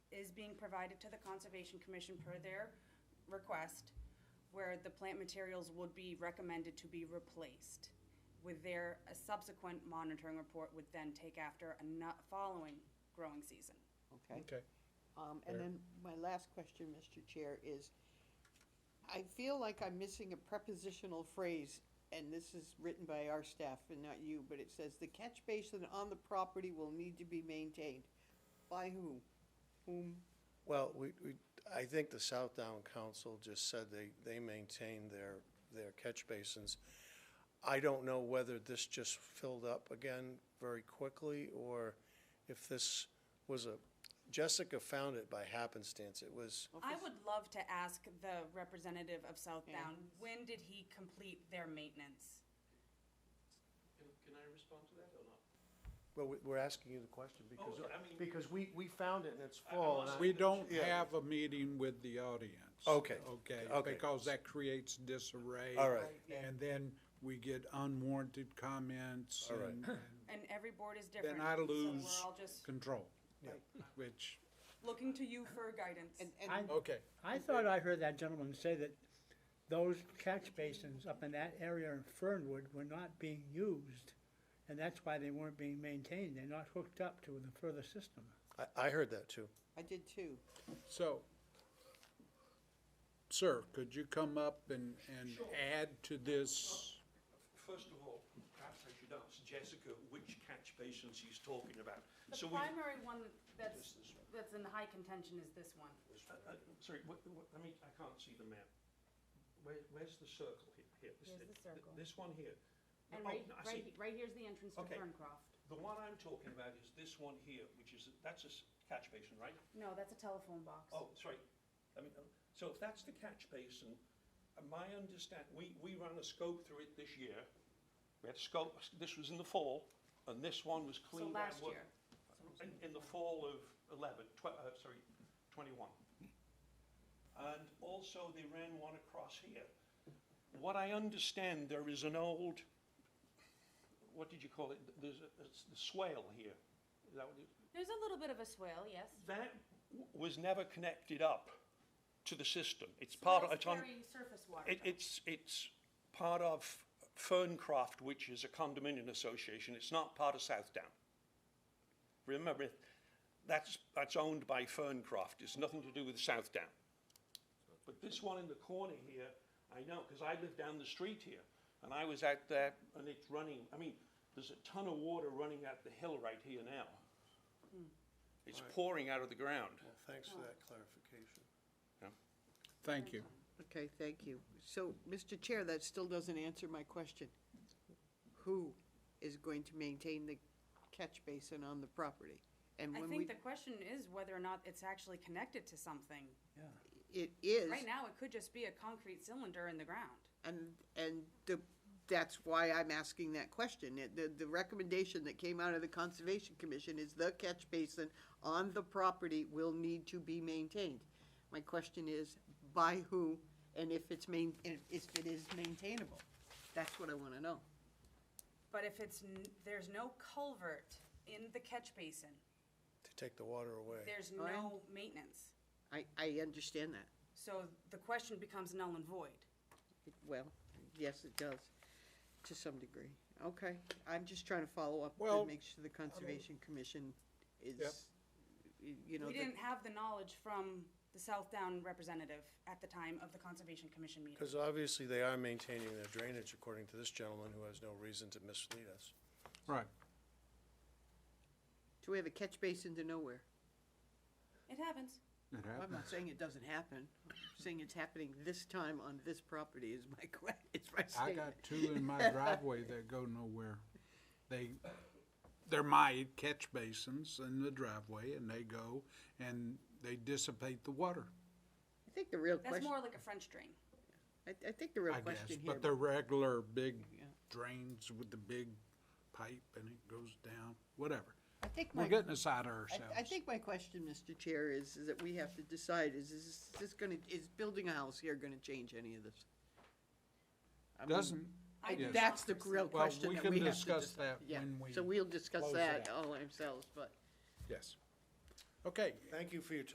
is being provided to the Conservation Commission per their request, where the plant materials would be recommended to be replaced. With their, a subsequent monitoring report would then take after a no- following growing season. okay? Okay, Um, Fair. and then my last question, Mr. Chair, is I feel like I'm missing a prepositional phrase, and this is written by our staff and not you, but it says the catch basin on the property will need to be maintained. By who? Whom? Well, we, we, I think the Southdown Council just said they, they maintain their, their catch basins. I don't know whether this just filled up again very quickly, or if this was a, Jessica found it by happenstance, it was, I would love to ask the representative of Southdown, when did he complete their maintenance? Can, can I respond to that or not? well, we- we're asking you the question, because, okay, Oh, I mean- because we, we found it and it's I- I'm full. and not- I- We we don't Yeah. have a meeting with the audience. Okay, Okay, okay. because that creates disarray. All right. And then we get unwarranted comments All right. and And every board is different. then I so lose We're all just control, which, looking to you for guidance. And, and, I, okay. I thought I heard that gentleman say that those catch basins up in that area in Fernwood were not being used, and that's why they weren't being maintained, they're not hooked up to the further system. I, I heard that too. I did too. So, sir, could you come up and, and add to this? First of all, perhaps I should ask Jessica which catch basins he's talking about. The So we, uh, primary one that's, This is- that's in high contention is this one. uh, sorry, what, what, I mean, I can't see the map. Where, where's the circle here? Here, this- Here's the th- circle. This one here. And Oh, right, I see. right, he- right here's the entrance to Okay. Ferncroft. The one I'm talking about is this one here, which is, that's a s- catch basin, right? No, that's a telephone box. Oh, sorry. I mean, um, so if that's the catch basin, uh, my understand, we, we ran a scope through it this year. We had scope, this was in the fall, and this one was So cleaned out. last wa- year. In, in the fall of 11, tw- uh, sorry, 21. And also they ran one across here. What I understand, there is an old, what did you call it? There's a, it's the swale here. Is that what it, There's a little bit of a swale, yes. that w- was never connected up to the system. It's So part of, that's it's on, carrying surface water. it, though. it's, it's part of Ferncroft, which is a condominium association. It's not part of Southdown. Remember, that's, that's owned by Ferncroft. It's nothing to do with Southdown. But this one in the corner here, I know, because I live down the street here, and I was out there, and it's running, I mean, there's a ton of water running out the hill right here now. It's pouring out of the ground. Well, thanks for that clarification. Thank you. Okay, thank you. So, Mr. Chair, that still doesn't answer my question. Who is going to maintain the catch basin on the property? And I when we, think the question is whether or not it's actually connected to something. it is. Right now, it could just be a concrete cylinder in the ground. And, and the, that's why I'm asking that question. It- The, the recommendation that came out of the Conservation Commission is the catch basin on the property will need to be maintained. My question is, by who, and if it's main, and if it is maintainable? That's what I wanna know. But if it's, n- there's no culvert in the catch basin, To take the water away. there's Brian? no maintenance. I, I understand that. So the question becomes null and void. It- Well, yes, it does, to some degree. Okay, I'm just trying to follow up Well, to make sure the Conservation Commission Yep. is, y- you know. We that- didn't have the knowledge from the Southdown representative at the time of the Conservation Commission meeting. Because obviously they are maintaining their drainage, according to this gentleman, who has no reason to mislead us. Right. So we have a catch basin to nowhere. It happens. It Well, I'm happened. not saying it doesn't happen. I'm saying it's happening this time on this property is my que, it's my I statement. got two in my driveway that go nowhere. They, they're my catch basins in the driveway and they go and they dissipate the water, I think the real That's question, more like a French drain. I, I think the real I guess. question here. But they're regular big Yeah. drains with the big pipe and it goes down, whatever. I think We're my, getting aside of I, ourselves. I think my question, Mr. Chair, is, is that we have to decide, is, is this- this gonna, is building a house here gonna change any of this? I mean, Doesn't, I do Yes. That's the not real perceive- Well, question we that can we have to. discuss dis- that yeah. when we So we'll discuss close it that out. all ourselves, but. yes. Okay, Thank you for your time.